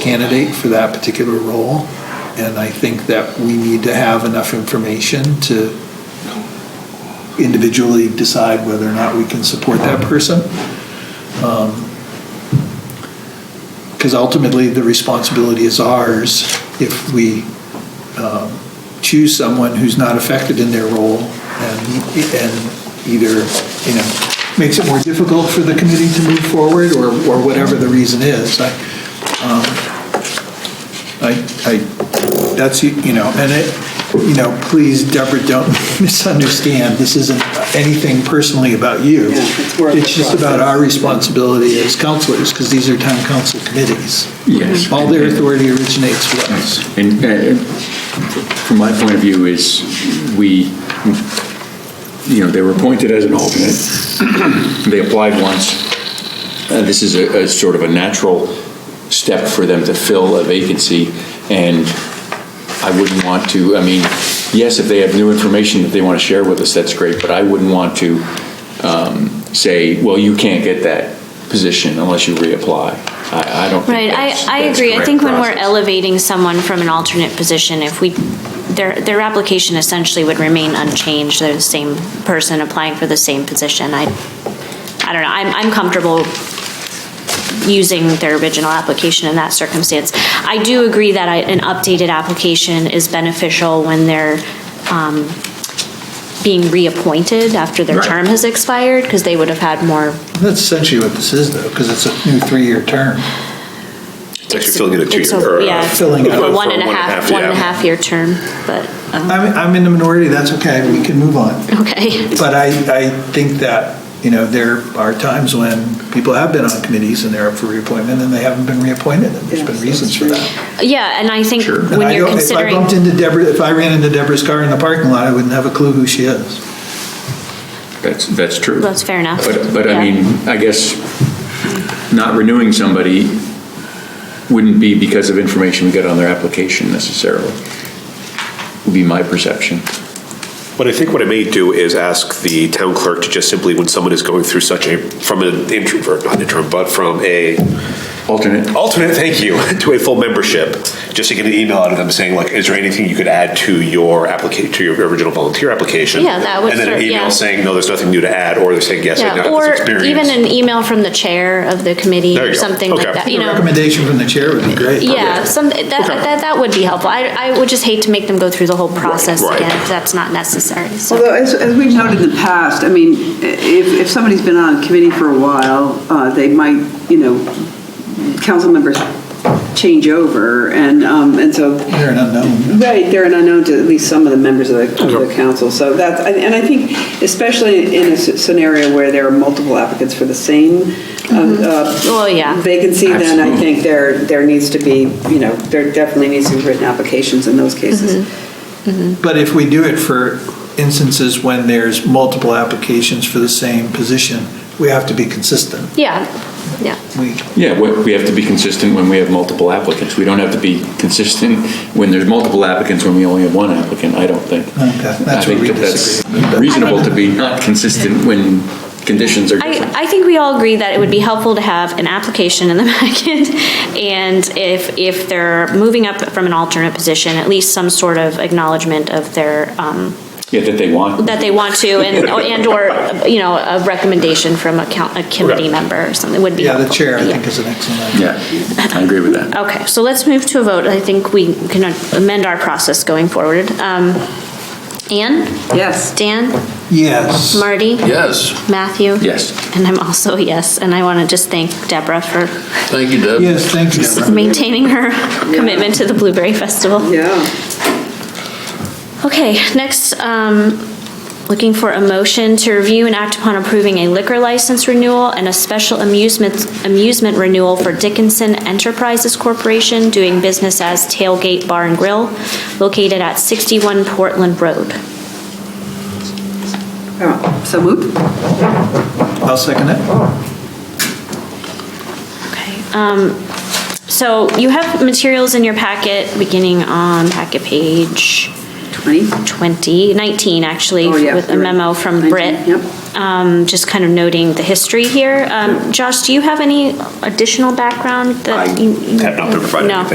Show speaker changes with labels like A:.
A: candidate for that particular role. And I think that we need to have enough information to individually decide whether or not we can support that person. Because ultimately, the responsibility is ours if we um, choose someone who's not effective in their role and, and either, you know, makes it more difficult for the committee to move forward or, or whatever the reason is. I, um, I, I, that's, you know, and it, you know, please, Deborah, don't misunderstand, this isn't anything personally about you.
B: Yeah, it's more of a
A: It's just about our responsibility as counselors, because these are town council committees.
C: Yes.
A: All their authority originates from us.
C: And uh, from my point of view is, we, you know, they were appointed as an alternate. They applied once. Uh, This is a a sort of a natural step for them to fill a vacancy, and I wouldn't want to, I mean, yes, if they have new information that they want to share with us, that's great, but I wouldn't want to um, say, well, you can't get that position unless you reapply. I I don't
D: Right,
C: think that's
D: I, I
C: that's
D: agree. I
C: correct
D: think when we're
C: process.
D: elevating someone from an alternate position, if we, their, their application essentially would remain unchanged, they're the same person applying for the same position. I, I don't know, I'm, I'm comfortable using their original application in that circumstance. I do agree that I- an updated application is beneficial when they're um, being reappointed after their
C: Right.
D: term has expired, because they would have had more
A: That's essentially what this is, though, because it's a new three-year term.
E: It's actually filling in a
D: It's a-
E: two-year, or
D: yeah,
E: a...
D: it's
A: filling
D: a
A: out
E: for
D: One and a half, one and a
E: yeah.
D: half year term, but, um,
A: I'm, I'm in the minority, that's okay, we can move on.
D: okay.
A: But I, I think that, you know, there are times when people have been on committees and they're up for reappointment and they haven't been reappointed, and there's been
B: Yes,
A: reasons
B: that's
A: for
B: true.
A: that.
D: Yeah, and I think
C: Sure.
A: And
D: when
A: I
D: you're
A: don't- If I
D: considering,
A: bumped into Deborah, if I ran into Deborah's car in the parking lot, I wouldn't have a clue who she is.
C: That's, that's true.
D: that's fair enough.
C: But, but
D: Yeah.
C: I mean, I guess not renewing somebody wouldn't be because of information we got on their application necessarily, would be my perception.
E: But I think what I may do is ask the town clerk to just simply, when someone is going through such a, from an introvert, not interim, but from a
C: Alternate,
E: alternate, thank you, to a full membership, just to get an email out of them saying like, is there anything you could add to your application, to your original volunteer application?
D: Yeah, that would
E: And then
D: serve-
E: an
D: yeah.
E: email saying, no, there's nothing new to add, or they're saying, yes, I
D: Yeah,
E: now have
D: or
E: this experience.
D: even an email from the chair of the committee
E: There
D: or
E: you go.
D: something like
E: Okay.
D: that, you
A: A
D: know?
A: recommendation from the chair would be great.
D: Yeah, some, that, that, that would be helpful. I, I would just hate to make them go through the whole process
E: right.
D: again if that's not necessary, so.
B: Although, as, as we've noted in the past, I mean, i- if, if somebody's been on a committee for a while, uh, they might, you know, council members change over, and, um, and so,
A: They're an unknown.
B: right, they're an unknown to at least some of the members of the, of the council, so that's, and and I think, especially in a s- scenario where there are multiple applicants for the same uh, uh,
D: Well, yeah,
B: vacancy, then I
C: Absolutely.
B: think there, there needs to be, you know, there definitely needs to be written applications in those cases.
A: But if we do it for instances when there's multiple applications for the same position, we have to be consistent.
D: yeah, yeah.
A: We,
C: yeah, we we have to be consistent when we have multiple applicants. We don't have to be consistent when there's multiple applicants when we only have one applicant, I don't think.
A: Okay, that's
C: I think
A: where we
C: that that's
A: disagree.
C: Reasonable to be not consistent when conditions are different.
D: I, I think we all agree that it would be helpful to have an application in the back end, and if, if they're moving up from an alternate position, at least some sort of acknowledgement of their, um,
C: Yeah, that they want.
D: that they want to, and, and/or, you know, a recommendation from a coun- a committee member or something would be
A: Yeah,
D: helpful.
A: the chair, I
D: Yeah.
A: think, is an excellent idea.
C: Yeah, I agree with that.
D: Okay, so let's move to a vote. I think we can amend our process going forward. Um, Anne?
B: Yes.
D: Dan?
A: Yes.
D: Marty?
F: Yes,
D: Matthew?
C: Yes.
D: And I'm also a yes, and I want to just thank Deborah for
F: thank you, Deb.
A: Yes, thank you, Deborah.
D: maintaining her commitment to the Blueberry Festival.
B: Yeah.
D: Okay, next, um, looking for a motion to review and act upon approving a liquor license renewal and a special amusement, amusement renewal for Dickinson Enterprises Corporation doing business as Tailgate Bar and Grill located at 61 Portland Road.
B: Oh, So moved?
A: I'll second it.
D: Okay. Um, so you have materials in your packet, beginning on packet page
B: 20?
D: 2019, actually,
B: Oh, yeah,
D: with a
B: you're right.
D: memo from
B: 19,
D: Britt.
B: yep.
D: um, Just kind of noting the history here. Um, Josh, do you have any additional background that
E: I
D: you? you-
E: have not been provided
D: No.
E: anything.